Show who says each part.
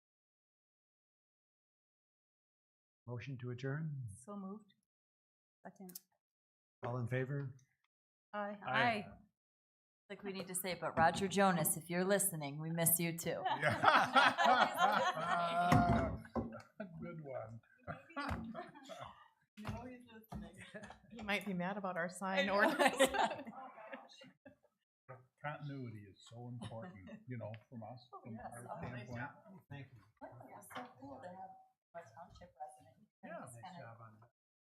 Speaker 1: Motion to adjourn?
Speaker 2: So moved. Second.
Speaker 1: All in favor?
Speaker 2: Aye.
Speaker 3: Aye.
Speaker 4: Like we need to say, but Roger Jonas, if you're listening, we miss you too.
Speaker 3: Yeah. Good one.
Speaker 5: He might be mad about our sign
Speaker 4: know.
Speaker 5: ordinance.
Speaker 3: Continuity is so important, you know, from us, from our standpoint.
Speaker 1: Thank you.
Speaker 4: So cool to have a township resident.
Speaker 3: Yeah, nice
Speaker 4: Kind of
Speaker 1: Job on that.